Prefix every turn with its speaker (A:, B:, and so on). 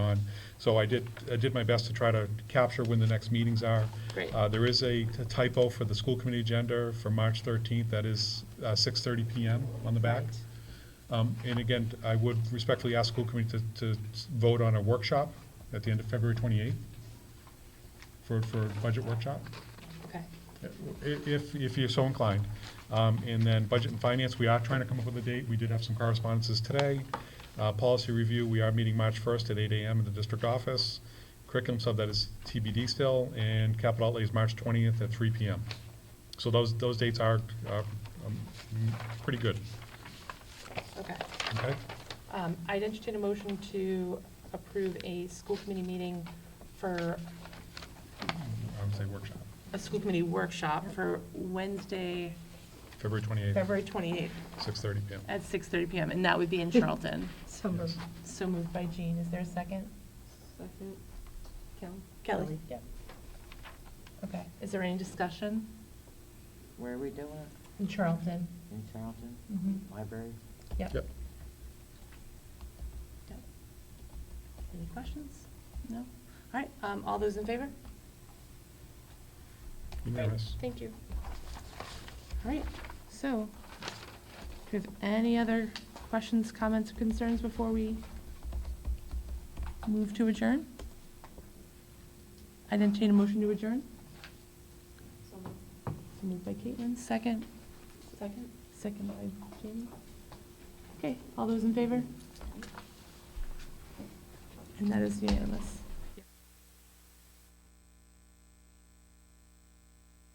A: So I did, I did my best to try to capture when the next meetings are.
B: Great.
A: Uh, There is a typo for the school committee agenda for March 13th, that is uh, 6:30 PM on the back.
B: Right.
A: Um, And again, I would respectfully ask school committee to, to vote on a workshop at the end of February 28th for, for budget workshop,
B: Okay,
A: i- if, if you're so inclined. Um, And then budget and finance, we are trying to come up with a date. We did have some correspondences today. Uh, Policy review, we are meeting March 1st at 8 AM in the district office. Curriculum sub, that is TBD still, and capital outlay is March 20th at 3 PM. So those, those dates are, uh, um, pretty good,
B: okay.
A: okay?
B: Um, I'd entertain a motion to approve a school committee meeting for,
A: I would say workshop,
B: a school committee workshop for Wednesday,
A: February 28th,
B: February 28th
A: 6:30 PM.
B: at 6:30 PM, and that would be in Charlton.
C: So moved.
B: So moved by Jean. Is there a second?
D: Second. Kelly?
B: Kelly?
C: Yeah.
B: Okay. Is there any discussion
D: Where are we doing it?
C: In Charlton.
D: In Charlton?
B: Mm-hmm.
C: Mhm.
D: Library?
C: Yep.
A: Yep.
B: Yep. Any questions? No? All right, um, all those in favor?
A: Unanimous.
B: Thank you. All right, so, do we have any other questions, comments, or concerns before we move to adjourn? I entertain a motion to adjourn? So Moved by Caitlin, second? Second. Second by Jamie. Okay, all those in favor? And that is unanimous.